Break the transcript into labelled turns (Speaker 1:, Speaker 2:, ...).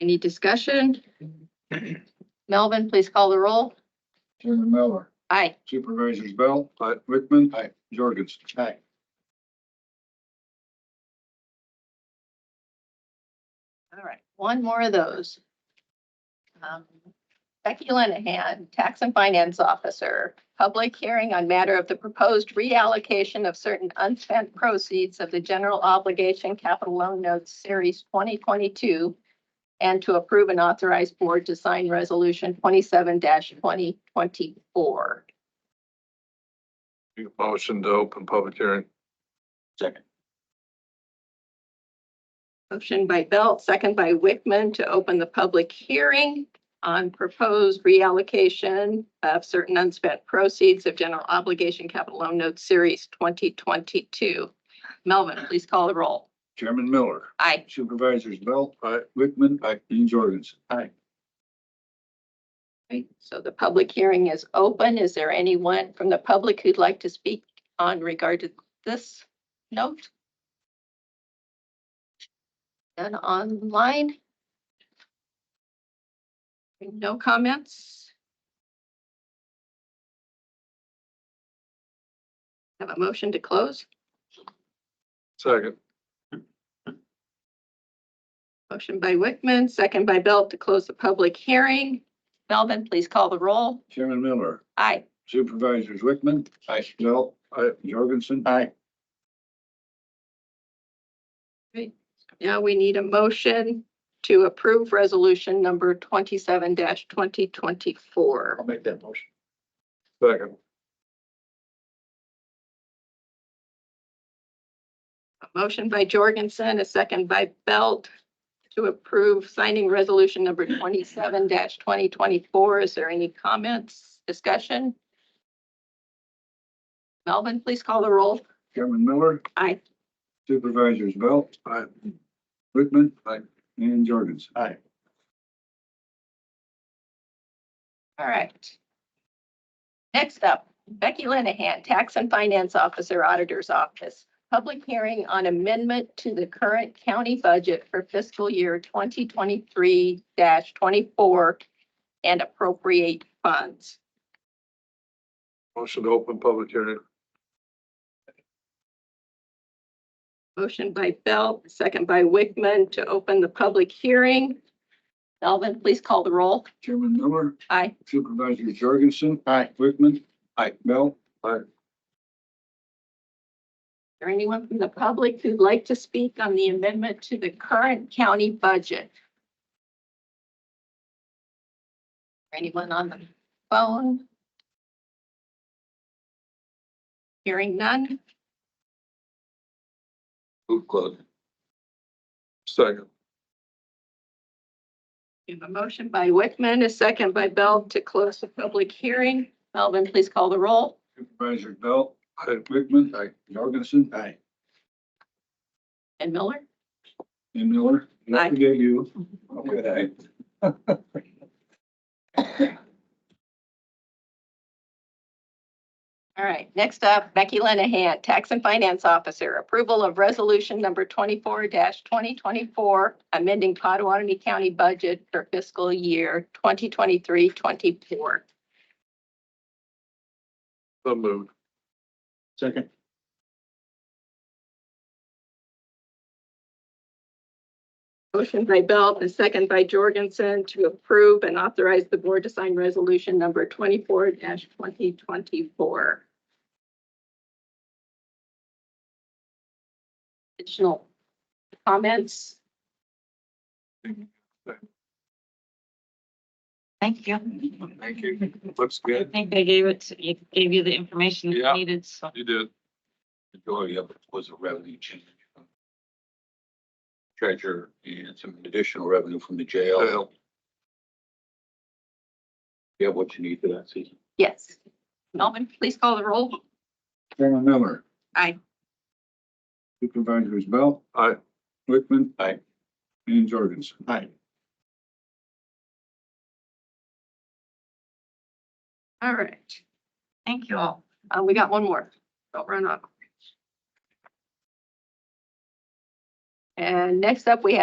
Speaker 1: Any discussion? Melvin, please call the roll.
Speaker 2: Chairman Miller.
Speaker 1: Aye.
Speaker 2: Supervisors Bell. Aye. Wickman.
Speaker 3: Aye.
Speaker 2: Jorgensen.
Speaker 3: Aye.
Speaker 1: All right, one more of those. Um, Becky Lenahan, Tax and Finance Officer, public hearing on matter of the proposed reallocation of certain unspent proceeds of the general obligation capital loan notes series twenty twenty-two and to approve and authorize board to sign resolution twenty-seven twenty twenty-four.
Speaker 4: Motion to open public hearing.
Speaker 3: Second.
Speaker 1: Motion by Belt, second by Wickman to open the public hearing on proposed reallocation of certain unspent proceeds of general obligation capital loan notes series twenty twenty-two. Melvin, please call the roll.
Speaker 2: Chairman Miller.
Speaker 1: Aye.
Speaker 2: Supervisors Bell.
Speaker 4: Aye.
Speaker 2: Wickman.
Speaker 3: Aye.
Speaker 2: And Jorgensen.
Speaker 1: Right, So the public hearing is open. Is there anyone from the public who'd like to speak on regard to this note? And online? No comments? Have a motion to close?
Speaker 4: Second.
Speaker 1: Motion by Wickman, second by Belt to close the public hearing. Melvin, please call the roll.
Speaker 2: Chairman Miller.
Speaker 1: Aye.
Speaker 2: Supervisors Wickman.
Speaker 3: Aye.
Speaker 2: Bell. Aye. Jorgensen.
Speaker 3: Aye.
Speaker 1: Now we need a motion to approve resolution number twenty-seven twenty twenty-four.
Speaker 3: I'll make that motion.
Speaker 4: Second.
Speaker 1: A motion by Jorgensen, a second by Belt to approve signing resolution number twenty-seven twenty twenty-four. Is there any comments, discussion? Melvin, please call the roll.
Speaker 2: Chairman Miller.
Speaker 1: Aye.
Speaker 2: Supervisors Bell.
Speaker 4: Aye.
Speaker 2: Wickman.
Speaker 4: Aye.
Speaker 2: And Jorgensen.
Speaker 3: Aye.
Speaker 1: All right. Next up, Becky Lenahan, Tax and Finance Officer, Auditor's Office. Public hearing on amendment to the current county budget for fiscal year twenty twenty-three twenty-four and appropriate funds.
Speaker 4: Motion to open public hearing.
Speaker 1: Motion by Belt, second by Wickman to open the public hearing. Melvin, please call the roll.
Speaker 2: Chairman Miller.
Speaker 1: Aye.
Speaker 2: Supervisors Jorgensen.
Speaker 3: Aye.
Speaker 2: Wickman.
Speaker 3: Aye.
Speaker 2: Bell.
Speaker 1: Is there anyone from the public who'd like to speak on the amendment to the current county budget? Anyone on the phone? Hearing none.
Speaker 3: Move close.
Speaker 4: Second.
Speaker 1: We have a motion by Wickman, a second by Bell to close the public hearing. Melvin, please call the roll.
Speaker 2: Supervisors Bell.
Speaker 4: Aye.
Speaker 2: Wickman.
Speaker 4: Aye.
Speaker 2: Jorgensen.
Speaker 3: Aye.
Speaker 1: And Miller?
Speaker 2: And Miller.
Speaker 1: Aye.
Speaker 2: Don't forget you.
Speaker 3: Good eye.
Speaker 1: All right, next up, Becky Lenahan, Tax and Finance Officer, approval of resolution number twenty-four twenty twenty-four, amending Potawatomi County budget for fiscal year 2023-24.
Speaker 4: So moved.
Speaker 3: Second.
Speaker 1: Motion by Belt and second by Jorgensen to approve and authorize the board to sign resolution number twenty-four twenty twenty-four. Additional comments?
Speaker 5: Thank you.
Speaker 4: Thank you. Looks
Speaker 5: I
Speaker 4: good.
Speaker 5: think they gave it, to- it gave you the information you
Speaker 4: Yeah.
Speaker 5: needed, so.
Speaker 4: You did.
Speaker 3: Majority of it was a revenue change. Treasurer and some additional revenue from the jail.
Speaker 4: Jail.
Speaker 3: You have what you need for that season.
Speaker 1: Yes. Melvin, please call the roll.
Speaker 2: Chairman Miller.
Speaker 1: Aye.
Speaker 2: Supervisors Bell.
Speaker 4: Aye.
Speaker 2: Wickman.
Speaker 3: Aye.
Speaker 2: And Jorgensen.
Speaker 3: Aye.
Speaker 1: All right.
Speaker 5: Thank you all.
Speaker 1: Uh, we got one more. Don't run off. And next up, we have